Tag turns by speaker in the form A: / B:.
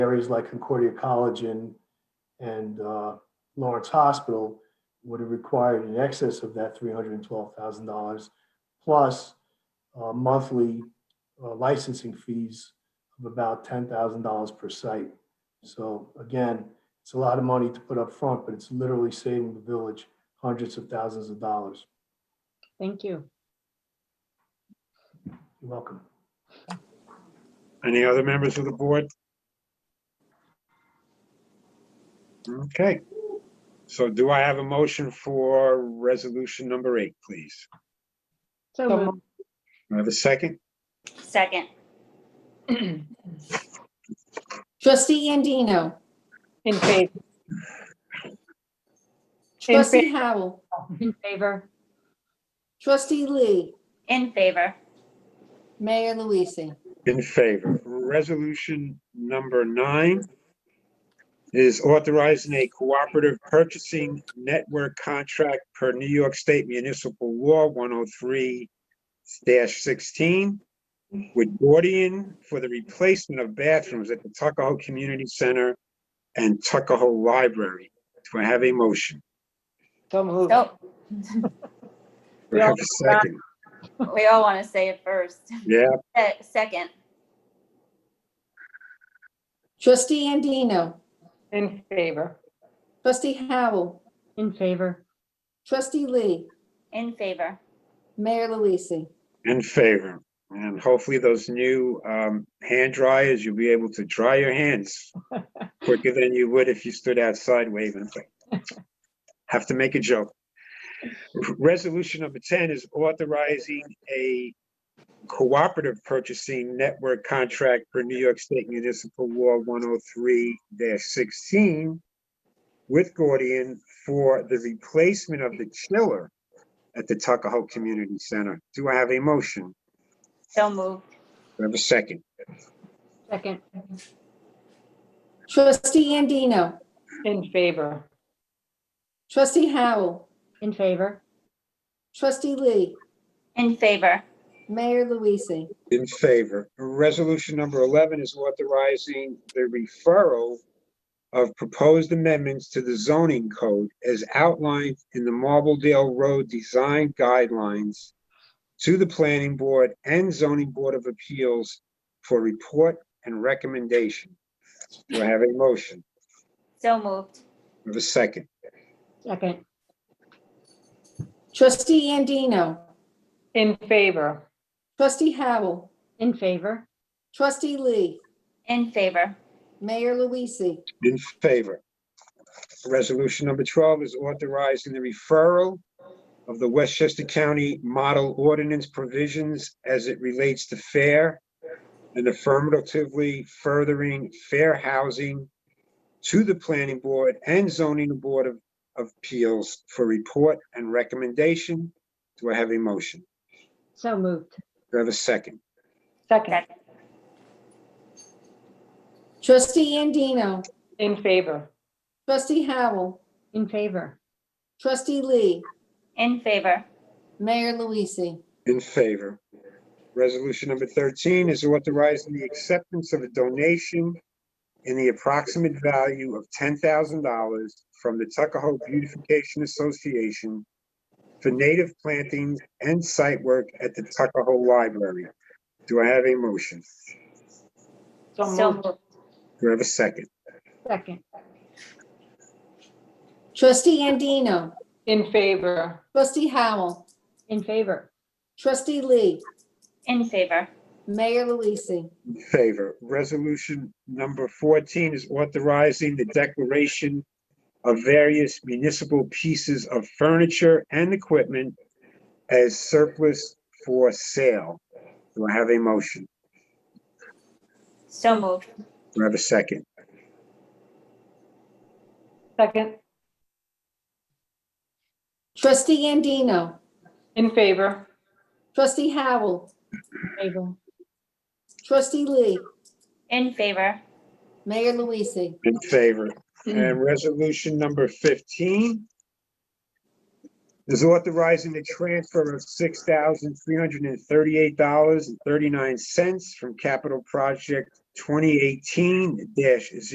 A: areas like Concordia College and, and uh, Lawrence Hospital would have required in excess of that $312,000 plus uh, monthly uh, licensing fees of about $10,000 per site. So again, it's a lot of money to put up front, but it's literally saving the village hundreds of thousands of dollars.
B: Thank you.
A: You're welcome.
C: Any other members of the board? Okay. So do I have a motion for resolution number eight, please?
B: So
D: So
B: moved.
C: Do I have a second?
E: Second,
D: Trustee Andino.
B: In favor. In
D: Trustee
B: favor.
D: Howell.
B: In favor.
D: Trustee Lee.
E: in favor,
D: Mayor Luise.
C: In favor. Resolution number nine is authorizing a cooperative purchasing network contract per New York State Municipal Law 103-16 with Gordian for the replacement of bathrooms at the Tuckahoe Community Center and Tuckahoe Library. Do I have a motion?
B: So moved.
E: so
C: Do I have a second?
E: we all want to say it first.
C: Yeah,
E: Eh, Second,
D: Trustee Andino.
B: In favor.
D: Trustee Howell.
B: In favor.
D: Trustee Lee.
E: in favor,
D: Mayor Luise.
C: in favor. And hopefully those new um, hand dryers, you'll be able to dry your hands quicker than you would if you stood outside waving. Have to make a joke. Resolution number 10 is authorizing a cooperative purchasing network contract for New York State Municipal Law 103-16 with Gordian for the replacement of the chiller at the Tuckahoe Community Center. Do I have a motion?
E: so moved,
C: Do I have a second?
B: Second.
D: Trustee Andino.
B: In favor.
D: Trustee Howell.
B: In favor.
D: Trustee Lee.
E: in favor,
D: Mayor Luise.
C: In favor. Resolution number 11 is authorizing the referral of proposed amendments to the zoning code as outlined in the Marbledale Road Design Guidelines to the Planning Board and Zoning Board of Appeals for report and recommendation. Do I have a motion?
E: so moved,
C: Do I have a second?
B: Second.
D: Trustee Andino.
B: In favor.
D: Trustee Howell.
B: In favor.
D: Trustee Lee.
E: in favor,
D: Mayor Luise.
C: In favor. Resolution number 12 is authorizing the referral of the Westchester County Model Ordinance provisions as it relates to fair and affirmatively furthering fair housing to the Planning Board and Zoning Board of of Appeals for report and recommendation. Do I have a motion?
B: So moved.
C: Do I have a second?
B: Second.
D: Trustee Andino.
B: In favor.
D: Trustee Howell.
B: In favor.
D: Trustee Lee.
E: in favor,
D: Mayor Luise.
C: In favor. Resolution number 13 is authorizing the acceptance of a donation in the approximate value of $10,000 from the Tuckahoe Beautification Association for native plantings and site work at the Tuckahoe Library. Do I have a motion?
E: so moved,
C: Do I have a second?
B: Second.
D: Trustee Andino.
B: In favor.
D: Trustee Howell.
B: In favor.
D: Trustee Lee.
E: in favor,
D: Mayor Luise.
C: In favor. Resolution number 14 is authorizing the declaration of various municipal pieces of furniture and equipment as surplus for sale. Do I have a motion?
E: so moved,
C: Do I have a second?
B: Second.
D: Trustee Andino.
B: In favor.
D: Trustee Howell.
B: Favor.
D: Trustee Lee.
E: in favor,
D: Mayor Luise.
C: In favor.
B: Mm-hmm.
C: And resolution number 15 is authorizing the transfer of $6,338.39 from capital project 2018 dash